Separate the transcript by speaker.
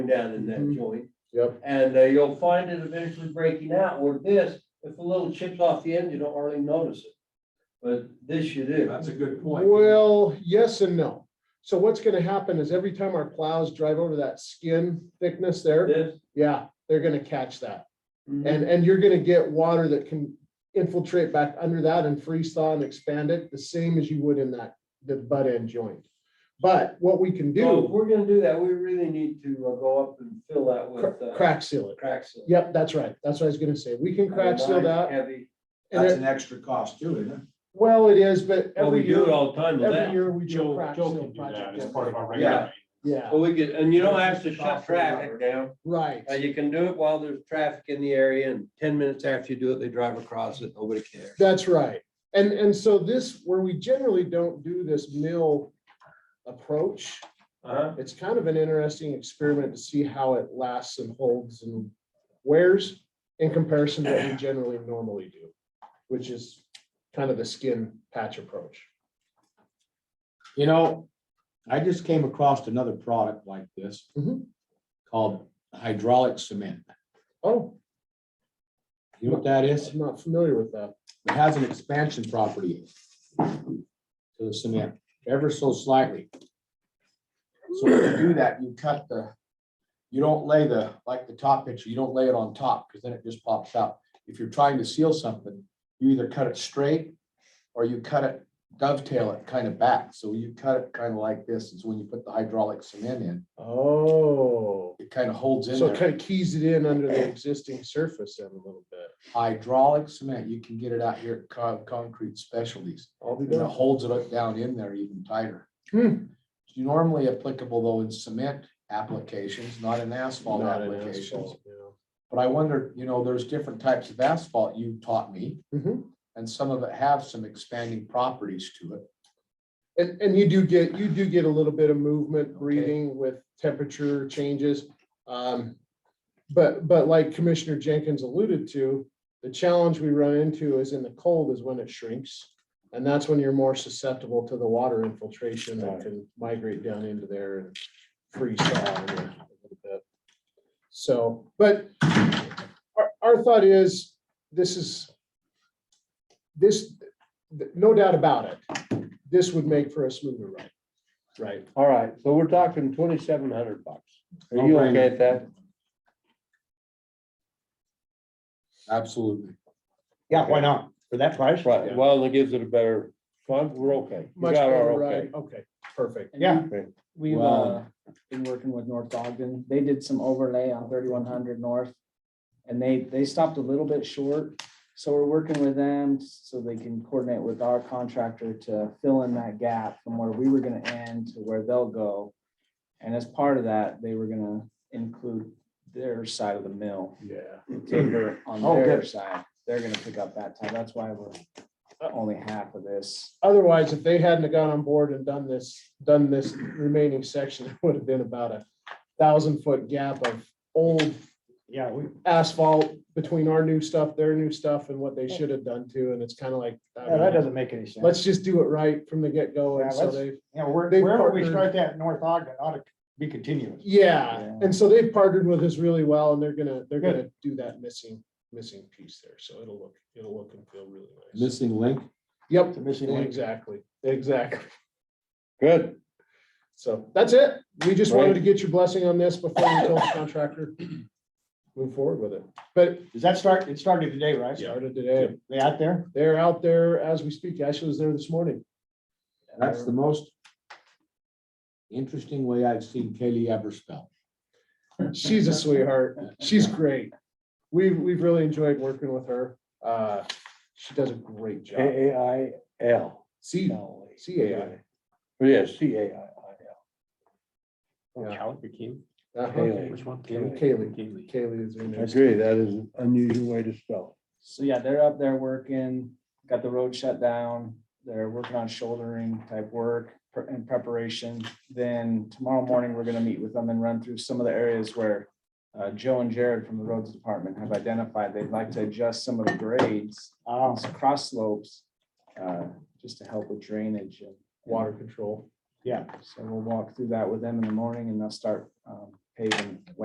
Speaker 1: down in that
Speaker 2: Mhm.
Speaker 1: joint.
Speaker 2: Yep.
Speaker 1: And uh, you'll find it eventually breaking out, where this, if a little chips off the end, you don't hardly notice it. But this you do.
Speaker 3: That's a good point.
Speaker 2: Well, yes and no. So what's gonna happen is every time our plows drive over that skin thickness there,
Speaker 1: This.
Speaker 2: yeah, they're gonna catch that.
Speaker 1: mhm.
Speaker 2: And, and you're gonna get water that can infiltrate back under that and freeze thaw and expand it, the same as you would in that, the butt end joint. But what we can
Speaker 1: So if
Speaker 2: do,
Speaker 1: we're gonna do that, we really need to uh, go up and fill that with
Speaker 2: cr-
Speaker 1: uh,
Speaker 2: crack seal it.
Speaker 1: crack seal.
Speaker 2: Yep, that's right. That's what I was gonna say. We can crack seal
Speaker 1: Nice,
Speaker 2: that.
Speaker 1: Heavy.
Speaker 2: And
Speaker 3: That's
Speaker 2: it-
Speaker 3: an extra cost too, isn't it?
Speaker 2: Well, it is, but
Speaker 1: Well, we
Speaker 2: every
Speaker 1: do it
Speaker 2: year,
Speaker 1: all the time with
Speaker 2: every
Speaker 1: that.
Speaker 2: year we do a
Speaker 4: Joe,
Speaker 2: crack
Speaker 4: Joe
Speaker 2: seal
Speaker 4: can do that
Speaker 2: project.
Speaker 4: as part of our
Speaker 1: Yeah.
Speaker 4: regular.
Speaker 2: Yeah,
Speaker 1: Well, we could, and you don't have to shut traffic down.
Speaker 2: right.
Speaker 1: Uh, You can do it while there's traffic in the area and ten minutes after you do it, they drive across it. Nobody cares.
Speaker 2: That's right. And, and so this, where we generally don't do this mill approach,
Speaker 1: Uh-huh.
Speaker 2: it's kind of an interesting experiment to see how it lasts and holds and wears in comparison to what we generally normally do, which is kind of the skin patch approach.
Speaker 4: You know, I just came across another product like this
Speaker 2: Mhm.
Speaker 4: called hydraulic cement.
Speaker 2: Oh,
Speaker 4: You know what that is?
Speaker 2: I'm not familiar with that.
Speaker 4: It has an expansion property to the cement ever so slightly. So when you do that, you cut the, you don't lay the, like the top picture, you don't lay it on top because then it just pops out. If you're trying to seal something, you either cut it straight or you cut it dovetail it kind of back. So you cut it kind of like this is when you put the hydraulic cement in,
Speaker 2: Oh,
Speaker 4: it kind of holds in
Speaker 2: so it
Speaker 4: there.
Speaker 2: kind of keys it in under the existing surface then a little bit.
Speaker 4: Hydraulic cement, you can get it out here at Con- Concrete Specialties.
Speaker 2: I'll be
Speaker 4: And it
Speaker 2: done.
Speaker 4: holds it up down in there even tighter.
Speaker 2: Hmm.
Speaker 4: It's Normally applicable though in cement applications, not in asphalt
Speaker 2: Not an
Speaker 4: applications.
Speaker 2: asphalt, yeah.
Speaker 4: But I wonder, you know, there's different types of asphalt you taught me.
Speaker 2: Mhm.
Speaker 4: And some of it have some expanding properties to it.
Speaker 2: And, and you do get, you do get a little bit of movement,
Speaker 4: Okay.
Speaker 2: breathing with temperature changes. Um, But, but like Commissioner Jenkins alluded to, the challenge we run into is in the cold is when it shrinks. And that's when you're more susceptible to the water infiltration that
Speaker 4: Right.
Speaker 2: can migrate down into there and freeze thaw. in there a little bit. So, but our, our thought is, this is, this, th- no doubt about it, this would make for a smoother ride. Right.
Speaker 1: All right, so we're talking twenty-seven hundred bucks. Are
Speaker 4: No
Speaker 1: you
Speaker 4: brainer.
Speaker 1: okay at that?
Speaker 4: Absolutely.
Speaker 5: Yeah, why not? For that price?
Speaker 1: Right, well, it gives it a better fun, we're okay. We
Speaker 2: Much
Speaker 1: got our
Speaker 2: better
Speaker 1: okay.
Speaker 2: ride. Okay, perfect.
Speaker 5: Yeah.
Speaker 6: We've uh,
Speaker 4: Wow.
Speaker 6: been working with North Ogden. They did some overlay on thirty-one hundred north. And they, they stopped a little bit short, so we're working with them so they can coordinate with our contractor to fill in that gap from where we were gonna end to where they'll go. And as part of that, they were gonna include their side of the mill,
Speaker 2: Yeah.
Speaker 6: timber on
Speaker 4: Oh,
Speaker 6: their
Speaker 4: good.
Speaker 6: side. They're gonna pick up that time. That's why we're only half of this.
Speaker 2: Otherwise, if they hadn't have got on board and done this, done this remaining section, it would have been about a thousand foot gap of old
Speaker 5: Yeah, we,
Speaker 2: asphalt between our new stuff, their new stuff and what they should have done too. And it's kind of like, I
Speaker 5: yeah, that
Speaker 2: mean,
Speaker 5: doesn't make any sense.
Speaker 2: let's just do it right from the get go. And
Speaker 5: Yeah,
Speaker 2: so
Speaker 5: let's-
Speaker 2: they,
Speaker 5: You know, where-
Speaker 2: They've
Speaker 5: wherever we
Speaker 2: partnered-
Speaker 5: start that in North Ogden ought to be continuous.
Speaker 2: yeah.
Speaker 6: Yeah.
Speaker 2: And so they've partnered with us really well and they're gonna, they're gonna do that missing, missing piece there. So it'll look, it'll look and feel really nice.
Speaker 4: Missing link.
Speaker 2: Yep,
Speaker 5: It's a missing link.
Speaker 2: exactly, exactly.
Speaker 1: Good,
Speaker 2: So that's it. We just wanted
Speaker 1: Right.
Speaker 2: to get your blessing on this before we told the contractor. Move forward with it, but
Speaker 5: Does that start, it started today, right?
Speaker 2: started today.
Speaker 5: They out there?
Speaker 2: They're out there as we speak. Ashley was there this morning.
Speaker 4: That's the most interesting way I've seen Kaylee ever spell.
Speaker 2: She's a sweetheart. She's great. We've, we've really enjoyed working with her. Uh, she does a great job.
Speaker 3: A A I L.
Speaker 2: C, C A I.
Speaker 3: Yes, C A I I
Speaker 2: Yeah.
Speaker 4: Calico.
Speaker 2: Uh-huh.
Speaker 3: Kaylee.
Speaker 4: Which one?
Speaker 2: Kaylee, Kaylee is her
Speaker 3: L. I
Speaker 2: name.
Speaker 3: agree, that is an unusual way to spell
Speaker 6: So yeah, they're up there working, got the road shut down, they're working on shouldering type work pre- in preparation. Then tomorrow morning, we're gonna meet with them and run through some of the areas where uh, Joe and Jared from the roads department have identified they'd like to adjust some of the grades,
Speaker 5: Oh,
Speaker 6: some cross slopes, uh, just to help with drainage and
Speaker 2: Water control.
Speaker 5: yeah.
Speaker 6: So we'll walk through that with them in the morning and they'll start um, paving